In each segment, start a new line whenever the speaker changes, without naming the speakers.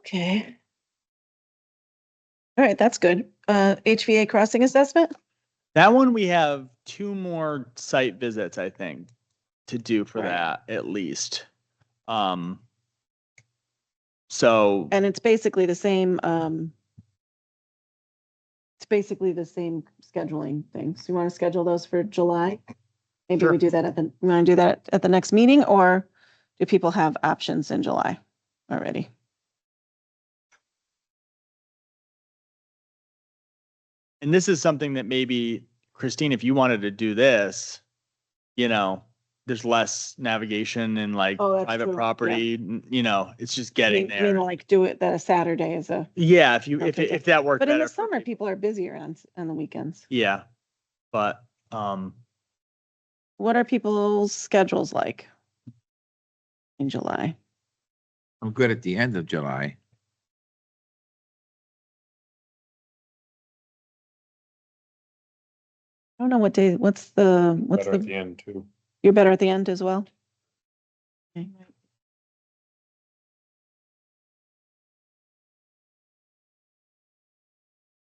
Okay. All right, that's good. Uh, HVA crossing assessment?
That one we have two more site visits, I think, to do for
Right.
that at least. Um. So
And it's basically the same, um, it's basically the same scheduling thing. So you want to schedule those for July? Maybe
Sure.
we do that at the, we want to do that at the next meeting or do people have options in July already?
and this is something that maybe Christine, if you wanted to do this, you know, there's less navigation and like
Oh, that's
private
true. Yeah.
property, n- you know, it's just
You-
getting
You
there.
know, like do it that a Saturday is a,
Yeah, if you, if,
Okay,
it- if that worked
but in
better.
the
for
summer,
people.
people are busier on, s- on the weekends.
Yeah, but, um,
What are people's schedules like in July?
I'm good at the end of July.
I don't know what day, what's the, what's
better at
the,
the end too.
you're better at the end as well? Okay.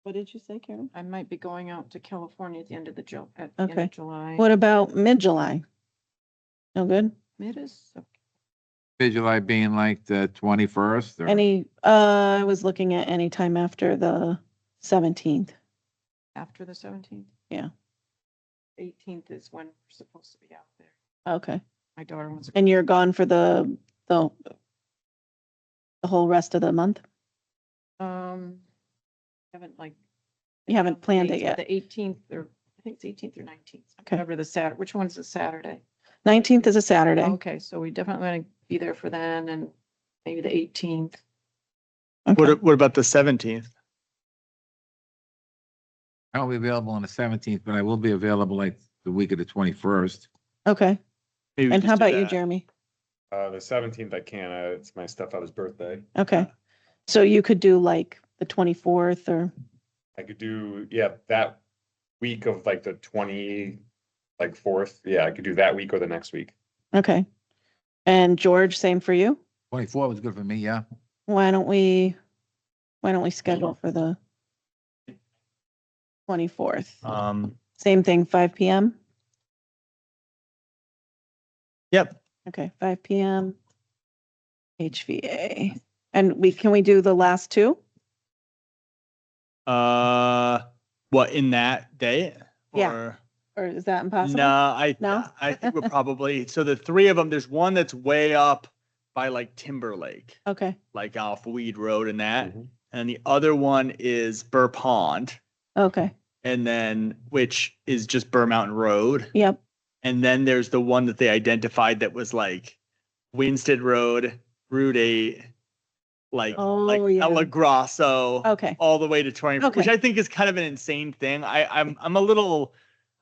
What did you say, Karen?
I might be going out to California at the end of the Ju- at the end
Okay.
of July.
What about mid-July? No good?
It is,
Mid July being like the twenty-first or
Any, uh, I was looking at any time after the seventeenth.
after the seventeenth?
Yeah.
Eighteenth is when we're supposed to be out there.
Okay.
My daughter wants.
And you're gone for the, the the whole rest of the month?
Um, haven't like.
You haven't planned it
dates, but
yet.
The eighteenth or, I think it's eighteenth or nineteenth.
Okay.
Whatever the Saturday, which one's the Saturday?
Nineteenth is a Saturday.
Okay, so we definitely want to be there for then and maybe the eighteenth.
Okay.
what, what about the seventeenth?
I won't be available on the seventeenth, but I will be available like the week of the twenty-first.
Okay. And how about you, Jeremy?
Uh, the seventeenth I can, uh, it's my stepfather's birthday.
Okay. So you could do like the twenty-fourth or,
I could do, yeah, that week of like the twenty, like fourth, yeah, I could do that week or the next week.
okay. And George, same for you?
Twenty-four was good for me, yeah.
Why don't we, why don't we schedule for the twenty-fourth?
Um,
Same thing, five PM?
yep,
Okay, five PM. HVA. And we, can we do the last two?
uh, what, in that day?
Yeah.
Or-
Or is that impossible?
No, I,
No?
I think we're probably, so the three of them, there's one that's way up by like Timberlake,
Okay,
like off Weed Road and
Mm-hmm.
that.
Mhm.
And the other one is Burr Pond
okay,
and then, which is just Burr Mountain Road.
yep,
And then there's the one that they identified that was like Winston Road, Route Eight, like, like
Oh, yeah. Oh,
El Grasso
okay.
all the way to 20 which
Okay.
i think is kind of an insane thing i i'm i'm a little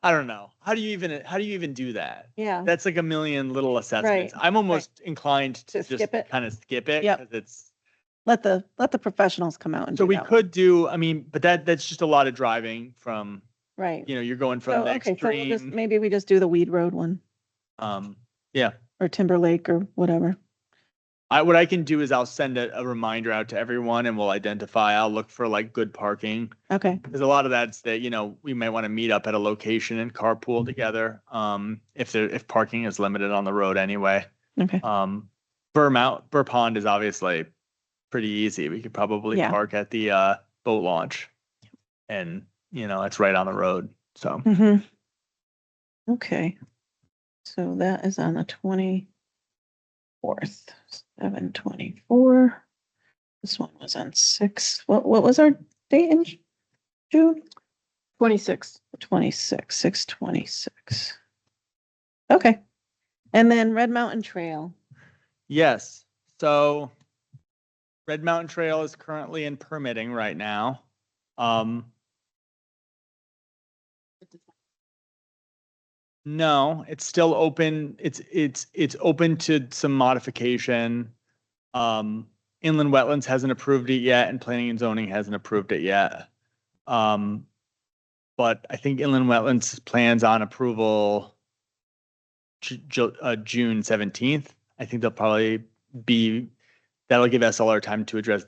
i don't know how do you even how do you even do that
Yeah,
that's like a million little assessments i'm almost inclined to,
To
just
skip it?
kind of skip it
Yep.
'cause it's
let the, let the professionals come out and
so
do
we
that one.
could do i mean but that that's just a lot of driving from
Right.
you know you're going
So,
from the
Oh, okay, so we'll
extreme
just, maybe we just do the Weed Road one
um yeah
or Timberlake or whatever.
I, what I can do is I'll send a, a reminder out to everyone and we'll identify. I'll look for like good parking.
Okay,
Because a lot of that's that, you know, we might want to meet up at a location and
Mm-hmm.
carpool together. Um, if there, if parking is limited on the road anyway.
okay,
Um, Burr Mount, Burr Pond is obviously pretty easy. We could probably
Yeah.
park at the, uh, boat launch. And, you know, it's right on the road. So
hmm Okay, so that is on the twenty-fourth, seven twenty-four. This one was on six, what, what was our date in Ju- June?
Twenty-sixth.
Twenty-six, six twenty-six. Okay, and then Red Mountain Trail.
Yes. So Red Mountain Trail is currently in permitting right now. Um, no, it's still open. It's, it's, it's open to some modification. Um, inland wetlands hasn't approved it yet and planning and zoning hasn't approved it yet. Um, but I think inland wetlands plans on approval Ju- Ju- uh, June seventeenth. I think they'll probably be, that'll give SLR time to address